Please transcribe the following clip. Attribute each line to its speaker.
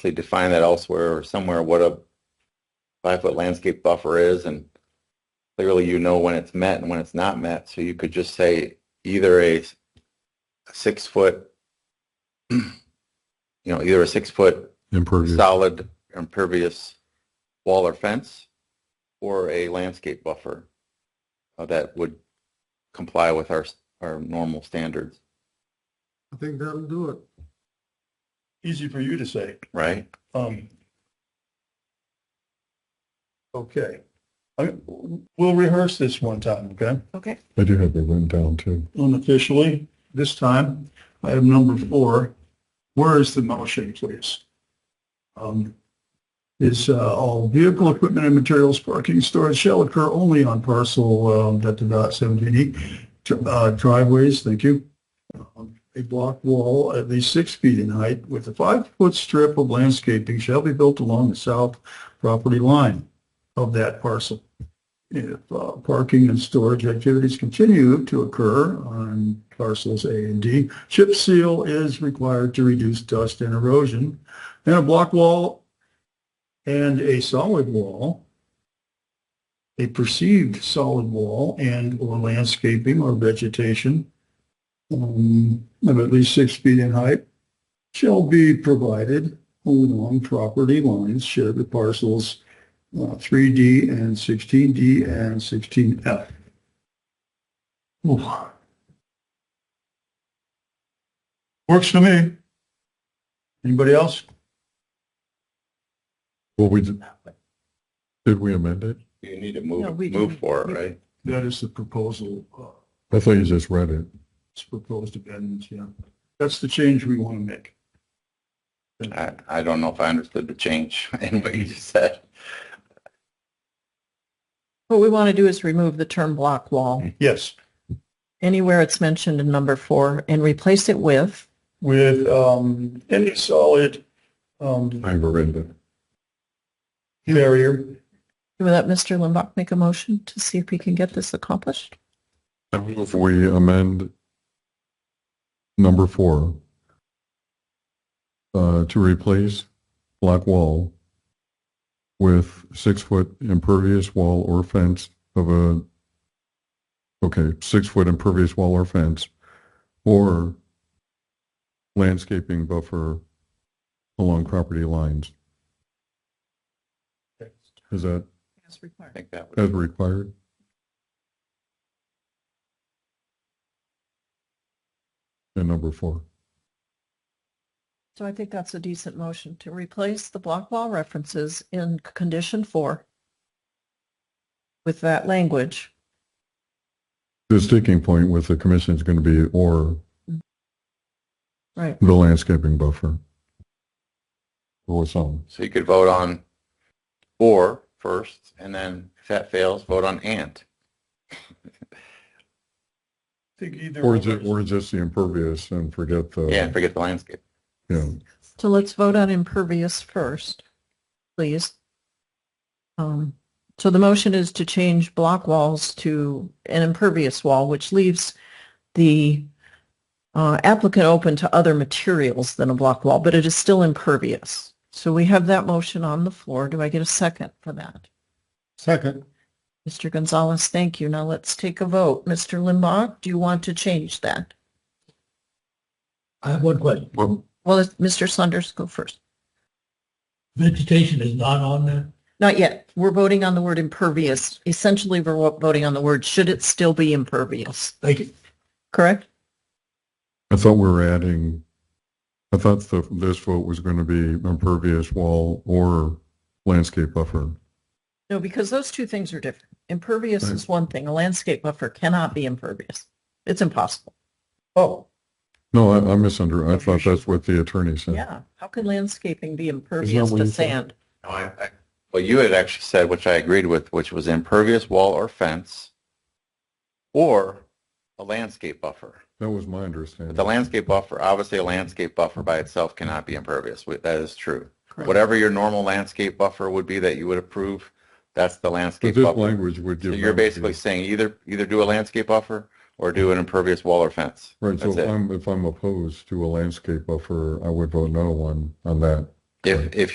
Speaker 1: actually define that elsewhere or somewhere, what a five-foot landscape buffer is, and clearly you know when it's met and when it's not met, so you could just say either a s- a six-foot, you know, either a six-foot
Speaker 2: Mm-hmm.
Speaker 3: impervious.
Speaker 1: solid impervious wall or fence or a landscape buffer uh, that would comply with our, our normal standards,
Speaker 4: I think that'll do it.
Speaker 2: Easy for you to say.
Speaker 1: right?
Speaker 2: Um,
Speaker 4: Okay.
Speaker 2: I, we'll rehearse this one time, okay?
Speaker 1: Okay.
Speaker 3: I do have it written down too.
Speaker 2: Unofficially, this time, item number four. Where is the motion, please? Um, is, uh, all vehicle equipment and materials parking storage shall occur only on parcel, um, that about seventeen E, dr- uh, driveways, thank you. Um, A block wall at least six feet in height with a five-foot strip of landscaping shall be built along the south property line of that parcel. If uh, parking and storage activities continue to occur on parcels A and D, chip seal is required to reduce dust and erosion. And a block wall and a solid wall, a perceived solid wall and or landscaping or vegetation um, of at least six feet in height shall be provided along property lines shared with parcels uh, 3D and 16D and 16F. Ooh. Works for me. Anybody else?
Speaker 3: Well, we did, did we amend it?
Speaker 1: You need to
Speaker 4: No,
Speaker 1: move,
Speaker 4: we
Speaker 1: move
Speaker 4: can-
Speaker 1: for it,
Speaker 4: we-
Speaker 1: right?
Speaker 2: That is the proposal, uh,
Speaker 3: I thought you just read it.
Speaker 2: it's proposed amendments, yeah. That's the change we want to make.
Speaker 1: I, I don't know if I understood the change in what you just said.
Speaker 5: What we want to do is remove the term block wall
Speaker 2: Yes,
Speaker 5: anywhere it's mentioned in number four and replace it with,
Speaker 2: with um, any solid um,
Speaker 3: I've read it.
Speaker 2: barrier.
Speaker 5: will that Mr. Limbach make a motion to see if we can get this accomplished?
Speaker 3: I move we oh amend number four uh, to replace block wall with six-foot impervious wall or fence of a, okay, six-foot impervious wall or fence, or landscaping buffer along property lines. Is that
Speaker 5: As
Speaker 1: I
Speaker 5: required.
Speaker 1: think that
Speaker 3: as
Speaker 1: would,
Speaker 3: required? And number four.
Speaker 5: So I think that's a decent motion to replace the block wall references in condition four with that language.
Speaker 3: The sticking point with the commission is going to be or
Speaker 5: Right.
Speaker 3: the landscaping buffer. Or some.
Speaker 1: so you could vote on for first, and then if that fails, vote on and.
Speaker 2: Think either.
Speaker 3: Or
Speaker 2: of
Speaker 3: just,
Speaker 2: those.
Speaker 3: or just the impervious and forget the.
Speaker 1: Yeah, forget the landscape.
Speaker 3: Yeah.
Speaker 5: So let's vote on impervious first, please. Um, So the motion is to change block walls to an impervious wall, which leaves the uh, applicant open to other materials than a block wall, but it is still impervious. So we have that motion on the floor. Do I get a second for that?
Speaker 4: Second.
Speaker 5: Mr. Gonzalez, thank you. Now let's take a vote. Mr. Limbach, do you want to change that?
Speaker 4: I have one question.
Speaker 3: Well,
Speaker 5: Well, let Mr. Saunders, go first.
Speaker 4: Vegetation is not on there?
Speaker 5: Not yet. We're voting on the word impervious. Essentially, we're wo- voting on the word, should it still be impervious?
Speaker 4: Thank you.
Speaker 5: Correct?
Speaker 3: I thought we were adding, I thought the, this vote was going to be impervious wall or landscape buffer.
Speaker 5: No, because those two things are different. Impervious
Speaker 3: Right.
Speaker 5: is one thing. A landscape buffer cannot be impervious. It's impossible.
Speaker 2: Oh,
Speaker 3: No, I, I misunderstood. I thought that's what the attorney said.
Speaker 5: Yeah. How can landscaping be impervious
Speaker 3: what
Speaker 5: to
Speaker 3: you said?
Speaker 5: sand?
Speaker 1: No, I, I, well, you had actually said, which I agreed with, which was impervious wall or fence or a landscape buffer.
Speaker 3: That was my
Speaker 1: But
Speaker 3: understanding.
Speaker 1: the landscape buffer, obviously a landscape buffer by itself cannot be impervious. We- That is true.
Speaker 5: Correct.
Speaker 1: Whatever your normal landscape buffer would be that you would approve, that's the
Speaker 3: But
Speaker 1: landscape
Speaker 3: this
Speaker 1: buffer.
Speaker 3: language would
Speaker 1: So
Speaker 3: give.
Speaker 1: you're basically saying either, either do a landscape buffer or do an impervious wall or fence.
Speaker 3: Right, so
Speaker 1: That's
Speaker 3: if
Speaker 1: it.
Speaker 3: I'm, if I'm opposed to a landscape buffer, I would vote no on, on that.
Speaker 1: If, if